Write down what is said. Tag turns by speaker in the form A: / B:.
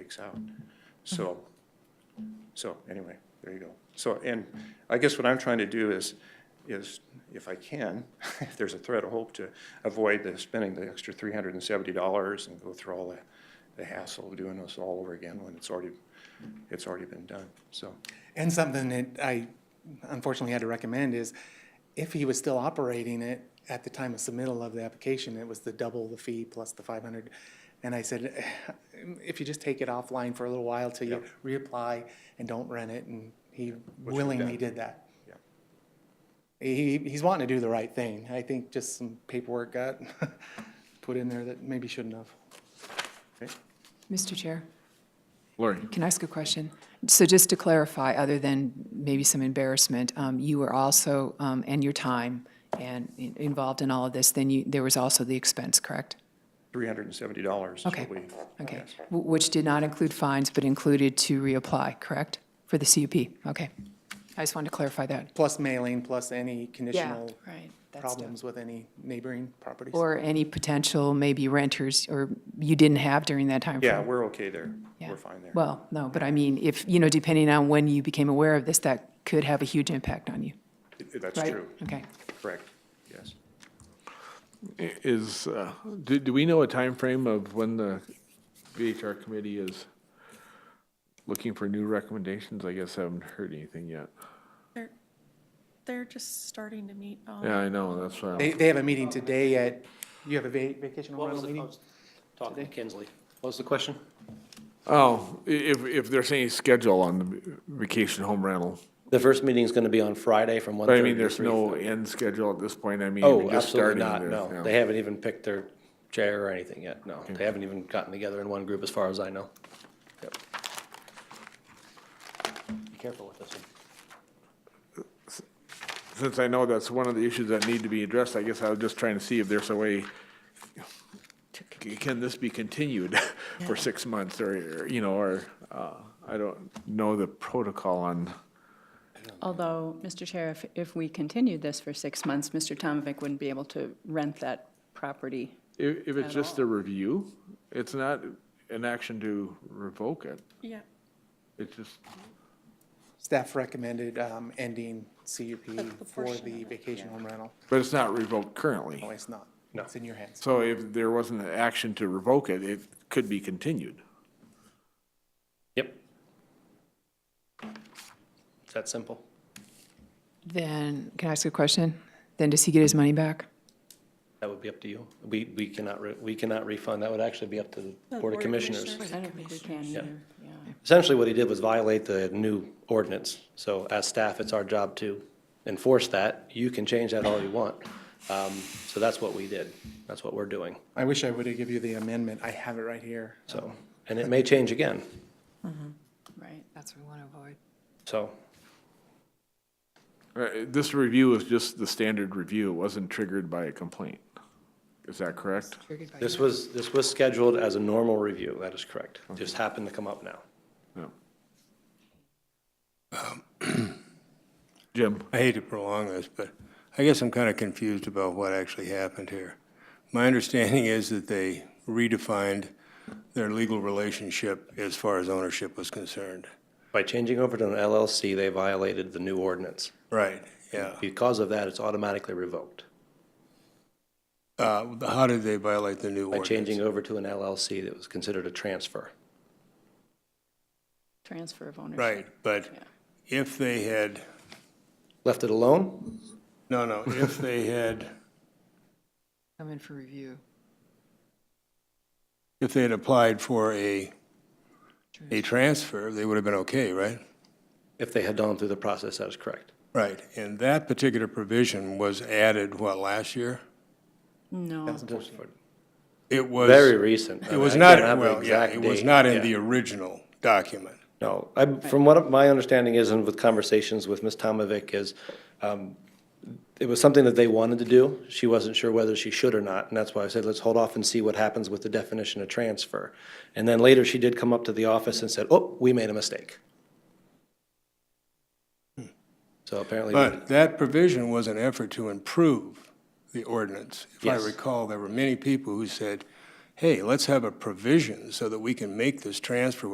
A: weeks out. So, so anyway, there you go. So, and I guess what I'm trying to do is, is if I can, if there's a thread of hope to avoid the spending the extra three hundred and seventy dollars and go through all the, the hassle of doing this all over again when it's already, it's already been done, so.
B: And something that I unfortunately had to recommend is if he was still operating it at the time of submittal of the application, it was the double the fee plus the five hundred. And I said, "Eh, if you just take it offline for a little while till you reapply and don't rent it, and he willingly did that.
A: Yeah.
B: He, he's wanting to do the right thing. I think just some paperwork got put in there that maybe shouldn't have.
A: okay.
C: Mr. Chair,
D: Lori?
C: can I ask a question? So just to clarify, other than maybe some embarrassment, um, you were also, um, and your time and in- involved in all of this, then you, there was also the expense, correct?
A: Three hundred and seventy dollars is
C: Okay,
A: what we.
C: okay.
A: yes.
C: Wh- Which did not include fines, but included to reapply, correct? For the CUP, okay. I just wanted to clarify that.
B: Plus mailing, plus any conditional
C: right. That's tough.
B: problems with any neighboring properties.
C: Or any potential maybe renters, or you didn't have during that time.
A: Yeah,
C: frame.
A: we're okay there.
C: Yeah.
A: We're fine there.
C: Well, no, but I mean, if, you know, depending on when you became aware of this, that could have a huge impact on you,
A: That's
C: right?
A: true,
C: Okay.
A: correct, yes.
D: Is, uh, do, do we know a time frame of when the VHR committee is looking for new recommendations? I guess I haven't heard anything yet.
E: They're, they're just starting to meet um, on.
D: Yeah, I know, that's why.
B: They,
D: I'm-
B: they have a meeting today at, you have a va- vacation home
F: What was
B: rental
F: the, I
B: meeting?
F: was talking to Kinsley. What was the question?
D: Oh, i- if, if there's any schedule on the vacation home rental.
F: The first meeting's gonna be on Friday from one
D: But
F: thirty
D: I mean, there's no end schedule at this point. I mean,
F: Oh,
D: we're just
F: absolutely
D: starting
F: not,
D: this,
F: no.
D: yeah.
F: They haven't even picked their chair or anything yet, no. They haven't even gotten together in one group as far as I know. Yep. Be careful with this one.
D: Since I know that's one of the issues that need to be addressed, I guess I was just trying to see if there's a way, c- can this be continued for six months or, you know, or, uh, I don't know the protocol on.
G: Although, Mr. Chair, if, if we continued this for six months, Mr. Tomovic wouldn't be able to rent that property.
D: If, if it's just a review, it's not an action to revoke it.
E: Yeah,
D: It's just,
B: Staff recommended, um, ending CUP
E: That's the
B: for
E: portion
B: the
E: of it,
B: vacation home rental.
D: but it's not revoked currently.
B: No, it's not. It's in your hands.
D: So if there wasn't an action to revoke it, it could be continued.
F: Yep. It's that simple.
C: Then, can I ask a question? Then does he get his money back?
F: That would be up to you. We, we cannot, re- we cannot refund. That would actually be up to the Board of Commissioners.
G: I don't think we can either, yeah.
F: Essentially, what he did was violate the new ordinance. So as staff, it's our job to enforce that. You can change that all you want. Um, So that's what we did. That's what we're doing,
B: I wish I would have given you the amendment. I have it right here.
F: so. And it may change again,
G: Right.
C: That's what we want to avoid.
F: so.
D: Uh, This review is just the standard review, it wasn't triggered by a complaint. Is that correct?
F: This was, this was scheduled as a normal review, that is correct. Just happened to come up now.
D: No. Jim?
H: I hate to prolong this, but I guess I'm kind of confused about what actually happened here. My understanding is that they redefined their legal relationship as far as ownership was concerned.
F: By changing over to an LLC, they violated the new ordinance.
H: Right, yeah.
F: Because of that, it's automatically revoked.
H: Uh, How did they violate the new
F: By
H: ordinance?
F: changing over to an LLC, that was considered a transfer.
G: Transfer of ownership.
H: Right, but if they had,
F: Left it alone,
H: no, no, if they had,
C: Come in for review.
H: if they had applied for a, a transfer, they would have been okay, right?
F: If they had gone through the process, that is correct.
H: Right, and that particular provision was added, what, last year?
G: No,
H: It was.
F: Very recent.
H: It was
F: Uh, I
H: not,
F: don't have an
H: well, yeah,
F: exact
H: it was
F: date.
H: not in
F: Yeah.
H: the original document.
F: No, I, from what my understanding is, and with conversations with Ms. Tomovic, is um, it was something that they wanted to do. She wasn't sure whether she should or not, and that's why I said, let's hold off and see what happens with the definition of transfer. And then later, she did come up to the office and said, oh, we made a mistake. So apparently,
H: Hmm. But that provision was an effort to improve the ordinance. If I
F: Yes.
H: recall, there were many people who said, hey, let's have a provision so that we can make this transfer